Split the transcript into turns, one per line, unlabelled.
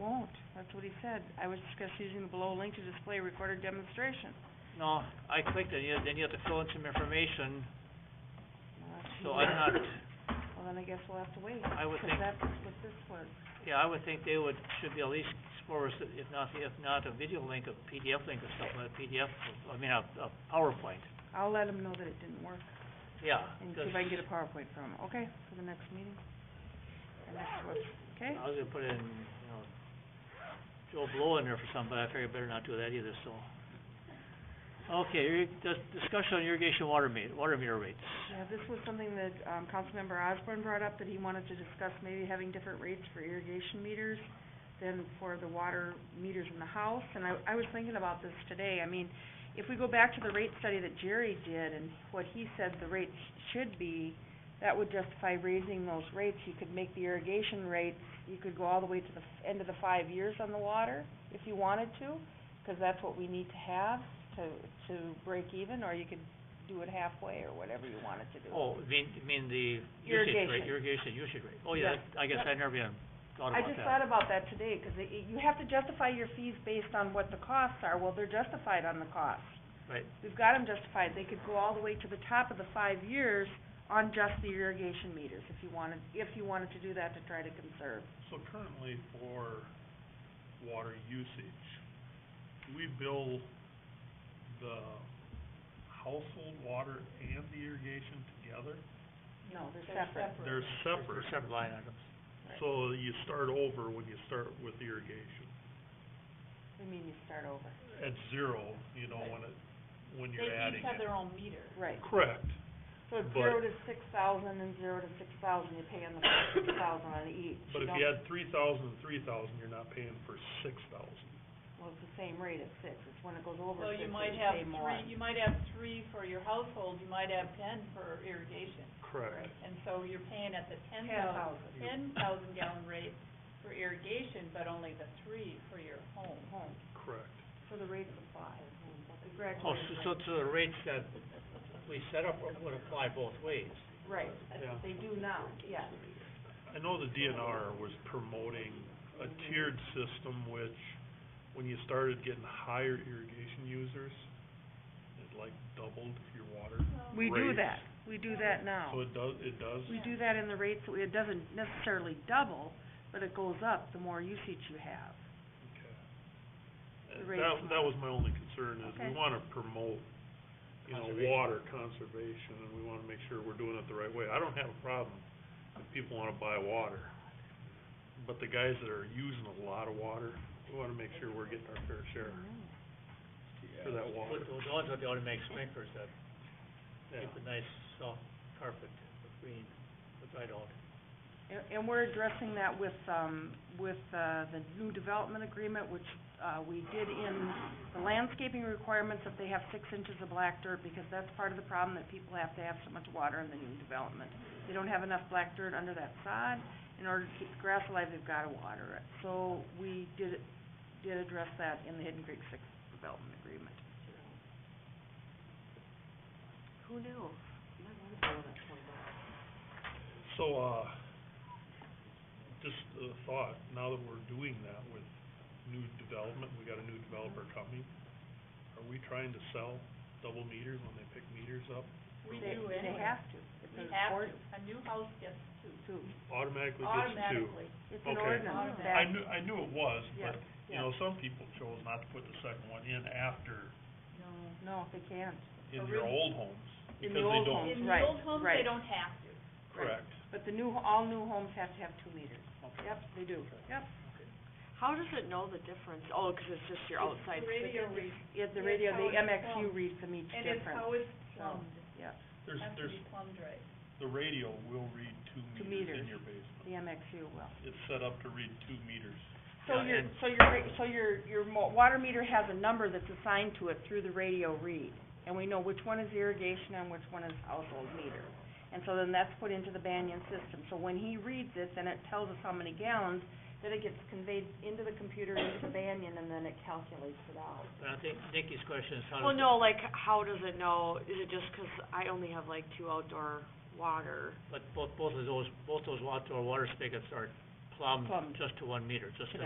That's what he said. I was discussed using the below link to display a recorded demonstration.
No, I clicked it, yeah, then you have to fill in some information,
Well, that's
so
too
I'm
bad.
not,
Well, then I guess we'll have to wait.
I would think-
Because that's what this was.
yeah, I would think they would, should be at least explore, us, if not, if not a video link, a PDF link or something, a PDF, I mean, a, a PowerPoint,
I'll let him know that it didn't work
yeah.
and see
'cause
if I can get a PowerPoint from him, okay, for the next meeting? And that's what, okay?
I was gonna put in, you know, Joe Blow in there for something, but I figured I better not do that either, so. Okay, irri- dis- discussion on irrigation water meter, water meter rates.
Yeah, this was something that, um, Councilmember Osborne brought up, that he wanted to discuss maybe having different rates for irrigation meters than for the water meters in the house, and I, I was thinking about this today, I mean, if we go back to the rate study that Jerry did and what he said the rates should be, that would justify raising those rates, you could make the irrigation rates, you could go all the way to the f- end of the five years on the water, if you wanted to, 'cause that's what we need to have to, to break even, or you could do it halfway or whatever you wanted to do.
Oh, you mean, you mean the usage
Irrigation.
rate, irrigation usage rate? Oh,
Yeah.
yeah, that- I guess
Yep.
I never even thought
I
about that.
just thought about that today, 'cause it, it- you have to justify your fees based on what the costs are, well, they're justified on the cost.
Right.
We've got them justified, they could go all the way to the top of the five years on just the irrigation meters, if you wanted, if you wanted to do that to try to conserve.
So currently for water usage, we bill the household water and the irrigation together?
No, they're separate.
They're
They're
separate,
Separate line items.
so you start over when you start with irrigation.
I mean, you start over.
At zero, you know, when it, when you're adding it.
own meter.
Right,
Correct,
so it's
But-
zero to six thousand and zero to six thousand, you pay on the first six thousand on each.
but if
don't-
you add three thousand and three thousand, you're not paying for six thousand.
Well, it's the same rate at six, it's when it goes over
So
six that
you
you
might have
pay more.
three, you might have three for your household, you might have ten for irrigation.
Correct.
And so you're paying at the ten
Ten
thousand,
thousand.
ten thousand gallon rate for irrigation, but only the three for your home.
Home,
Correct.
for the rate of supply, the graduated
Oh,
rate.
so, so, so the rates that we set up would apply both ways.
Right,
Yeah.
they do now, yes.
I know the DNR was promoting a tiered system which, when you started getting higher irrigation users, it like doubled your water.
We do
Rates.
that, we do that
So
now.
it does, it does,
We do that in the rates, that we- it doesn't necessarily double, but it goes up the more usage you have.
okay.
The
And
rates
That, that
more.
was my only concern is
Okay.
we wanna promote, you know,
Conservation.
water conservation and we wanna make sure we're doing it the right way. I don't have a problem if people wanna buy water. But the guys that are using a lot of water, we wanna make sure we're getting our fair share for that water.
With, with those, they ought to make sprinklers that
Yeah.
keep a nice soft carpet of green, which I don't.
And, and we're addressing that with, um, with, uh, the new development agreement, which, uh, we did in the landscaping requirements that they have six inches of black dirt, because that's part of the problem, that people have to have so much water in the new development. They don't have enough black dirt under that sod, in order to keep the grass alive, they've gotta water it. So we did, did address that in the Hidden Creek Six Development Agreement. Who knew?
So, uh, just a thought, now that we're doing that with new development, we got a new developer coming, are we trying to sell double meters when they pick meters up?
We
They-
do
They
anyway.
have to. It's
We
an
have
ord-
to, a new house gets two.
to.
Automatically gets two.
Automatically.
It's an
Okay.
ordinance
Automatic.
that.
I knew, I knew it was, but, you
yeah.
know, some people chose not to put the second one in after,
No.
No, they can't.
in
Or
their
really-
old homes,
In
because
the
they
old
don't.
homes.
In the
Right,
old homes,
right.
they don't have to.
Correct.
But the new, all new homes have to have two meters.
Okay.
Yep, they do. Yep.
How does it know the difference? Oh, 'cause it's just your
It's
outside.
Radio read,
Yeah, the
Yes,
radio,
how
the
it's
MXU
plumbed.
reads them each
and it's
different.
how it's
so,
plumbed,
Yep,
There's,
has to
there's,
be plumbed right.
the radio will read
Two
two meters in
meters.
your basement.
the MXU will.
It's set up to read two meters.
So
Yeah,
your,
and-
so your, ra- so your, your mo- water meter has a number that's assigned to it through the radio read. And we know which one is irrigation and which one is household meter. And so then that's put into the Banyan system. So when he reads it, then it tells us how many gallons, then it gets conveyed into the computer, into the Banyan, and then it calculates it out.
But I think Nikki's question is how does.
Well, no, like, how does it know? Is it just 'cause I only have like two outdoor water?
But both, both of those, both those outdoor water spigots are plumbed
Plumbed.
just to one meter, just
To
to